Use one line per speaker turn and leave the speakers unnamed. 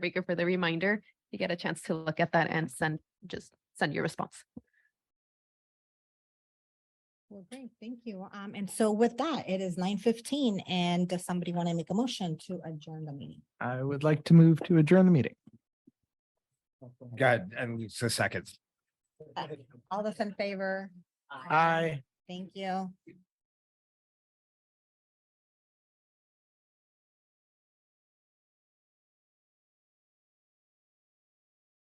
Rika for the reminder. You get a chance to look at that and send, just send your response.
Well, great, thank you. Um, and so with that, it is nine fifteen and does somebody want to make a motion to adjourn the meeting?
I would like to move to adjourn the meeting.
Go ahead, and it's the seconds.
All those in favor?
Aye.
Thank you.